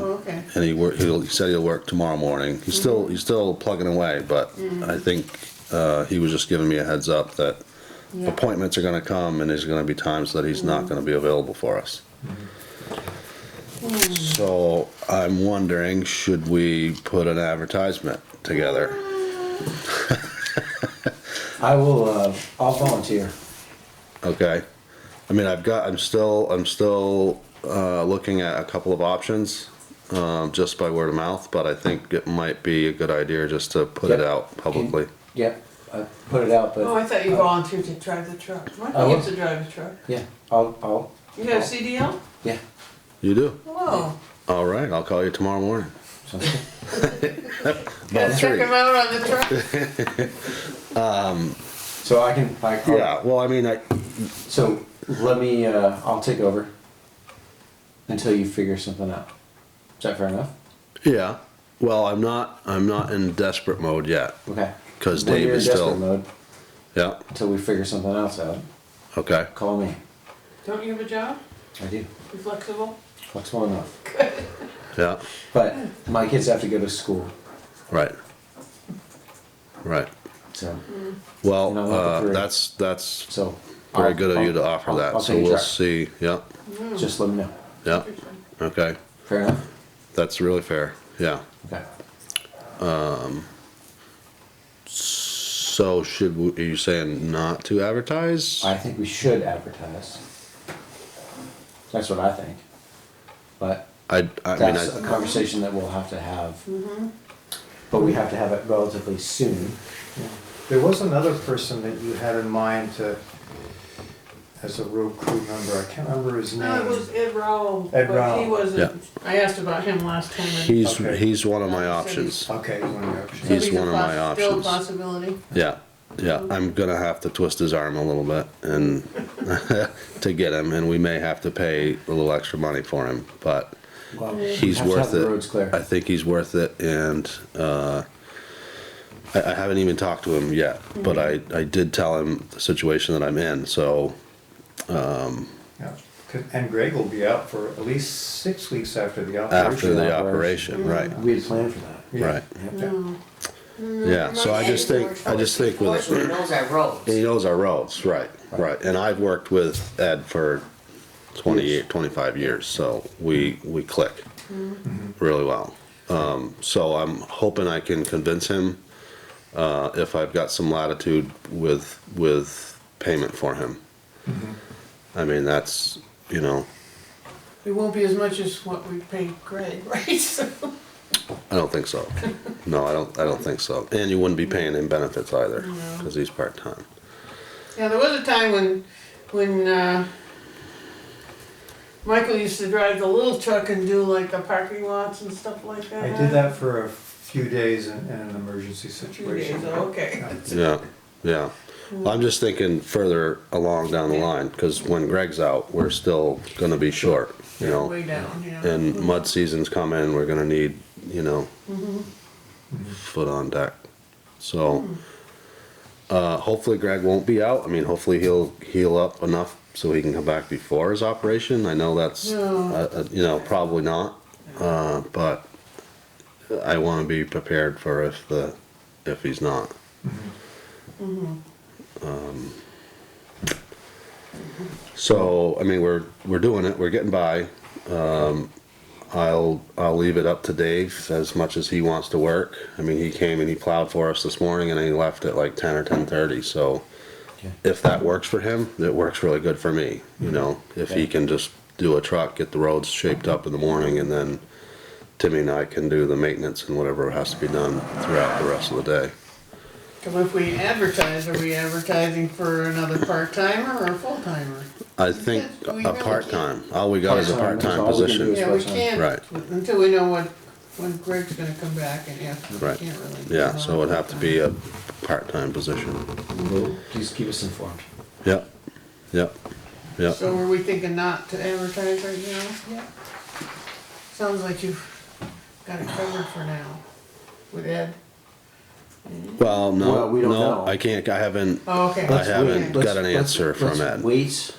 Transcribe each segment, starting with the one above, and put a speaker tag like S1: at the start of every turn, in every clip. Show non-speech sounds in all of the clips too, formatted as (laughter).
S1: Oh, Okay. Mm-hmm.
S2: And he worked, he said he'll work tomorrow morning. He's still, he's still plugging away, but I think, uh, he was just giving me a heads up that
S1: Yeah. Mm-hmm.
S2: appointments are gonna come and there's gonna be times that he's not gonna be available for us.
S1: Mm-hmm.
S2: So I'm wondering, should we put an advertisement together?
S3: I will, uh, I'll volunteer.
S2: Okay. I mean, I've got, I'm still, I'm still, uh, looking at a couple of options, um, just by word of mouth, but I think it might be a good idea just to put it
S3: Yep.
S2: out publicly.
S3: Yep, I put it out,
S1: Oh, I
S3: but,
S1: thought you volunteered to drive the truck. Why
S3: I
S1: do you get
S3: will.
S1: to drive the truck?
S3: yeah, I'll, I'll,
S1: You got a CDL?
S3: yeah.
S2: You do?
S1: Whoa.
S2: All right, I'll call you tomorrow morning.
S3: So-
S2: About
S1: Check
S2: three.
S1: him out on the truck.
S2: (laughs)
S3: So I can, I, I'll-
S2: Yeah, well, I mean, I,
S3: so let me, uh, I'll take over until you figure something out. Is that fair enough?
S2: yeah, well, I'm not, I'm not in desperate mode yet,
S3: Okay.
S2: 'Cause
S3: When
S2: Dave
S3: you're in
S2: is
S3: desperate
S2: still-
S3: mode,
S2: yeah,
S3: Until we figure something else out,
S2: okay.
S3: call me.
S1: Don't you have a job?
S3: I do.
S1: You flexible?
S3: Flexible enough.
S2: Yeah,
S3: But my kids have to go to school,
S2: right. Right,
S3: so,
S1: Mm.
S2: well,
S3: And I want the
S2: uh,
S3: three.
S2: that's, that's
S3: so.
S2: very
S3: I'll-
S2: good of you to
S3: I'll-
S2: offer
S3: I'll-
S2: that,
S3: I'll
S2: so
S3: take a
S2: we'll
S3: try.
S2: see, yeah,
S1: Mm.
S3: Just let me know.
S2: yeah, okay,
S3: Fair enough?
S2: that's really fair, yeah.
S3: Okay.
S2: So should, we- are you saying not to advertise?
S3: I think we should advertise. That's what I think. But
S2: I, I mean,
S3: that's a
S2: I,
S3: conversation that we'll have to have. But we have to have it relatively soon.
S4: There was another person that you had in mind to, as a road crew member, I can't remember his
S1: No, it
S4: name.
S1: was Ed Rowell.
S4: Ed
S1: but He
S4: Rowell.
S1: wasn't, I asked about him last time. and-
S2: he's,
S4: Okay.
S2: he's one of my options,
S4: Okay, one of the
S1: So
S4: options.
S2: he's
S1: a
S2: one of my
S1: poss- Still a
S2: options.
S1: possibility.
S2: Yeah, yeah, I'm gonna have to twist his arm a little bit and (laughs) to get him, and we may have to pay a little extra money for him, but
S3: Well, we
S2: he's
S3: have to have
S2: worth
S3: the roads
S2: it. I
S3: clear.
S2: think he's worth it, and uh, I, I haven't even talked to him yet, but I I did tell him the situation that I'm in, so
S4: Yeah. 'Cause- And Greg will be out for at least six weeks after the
S2: after
S4: operation.
S2: the
S3: Operation.
S2: operation, right,
S3: We had planned for that.
S4: Yeah.
S2: right,
S4: Yeah.
S2: yeah. So I just think I just think with
S5: Fortunately, knows our
S2: And
S5: roads.
S2: he knows our roads, right, right. And I've worked with Ed for 28, 25 years, so we, we click
S5: Mm-hmm.
S2: really well. Um, so I'm hoping I can convince him, uh, if I've got some latitude with, with payment for him.
S5: Mm-hmm.
S2: I mean, that's, you know,
S1: It won't be as much as what we paid Greg, (laughs) right? So-
S2: I don't think
S5: (laughs)
S2: so. No, I don't, I don't think so. And you wouldn't be paying him benefits either, cause he's part-time.
S1: Yeah, there was a time when, when, uh, Michael used to drive the little truck and do like the parking lots and stuff like that.
S4: I did that for a few days in, in an emergency situation.
S1: days, oh, okay.
S4: Yeah.
S2: Yeah, yeah. Well, I'm just thinking further along down the line, because when Greg's out, we're still gonna be short, you know?
S1: Way down, yeah.
S2: And mud season's coming, we're gonna need, you know, foot on deck. So, uh, hopefully Greg won't be out. I mean, hopefully he'll heal up enough so he can come back before his operation. I know that's,
S1: No.
S2: uh, uh, you know, probably not. Uh, but I wanna be prepared for if the, if he's not. Um, So, I mean, we're, we're doing it, we're getting by. Um, I'll, I'll leave it up to Dave as much as he wants to work. I mean, he came and he plowed for us this morning and he left at like ten or ten thirty, so
S3: Okay.
S2: if that works for him, it works really good for me, you know? If he
S3: Okay.
S2: can just do a truck, get the roads shaped up in the morning and then Timmy and I can do the maintenance and whatever has to be done throughout the rest of the day.
S1: Cause if we advertise, are we advertising for another part-timer or a full-timer?
S2: I think
S1: Because we
S2: a
S1: really
S2: part-time, all we got is a
S3: Part-time, that's
S2: part-time
S3: all we can do
S2: position.
S3: is
S1: Yeah, we
S3: part-time.
S1: can't,
S2: Right.
S1: until we know what, when Greg's gonna come back and after, we
S2: Right.
S1: can't really.
S2: Yeah, so it'd have to be a part-time position.
S3: We'll- Just keep us informed.
S2: Yep, yep, yep.
S1: So were we thinking not to advertise right now? Yeah. Sounds like you've got it covered for now with Ed.
S2: Well,
S3: Well,
S2: no,
S3: we don't
S2: no,
S3: know.
S2: I can't, I haven't,
S1: Oh, okay.
S2: I haven't
S1: Okay.
S2: got
S3: Let's-
S2: an
S3: let's-
S2: answer from
S3: let's
S2: Ed.
S3: Wait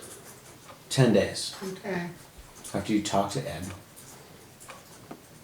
S3: ten days
S1: Okay,
S3: after you talk to Ed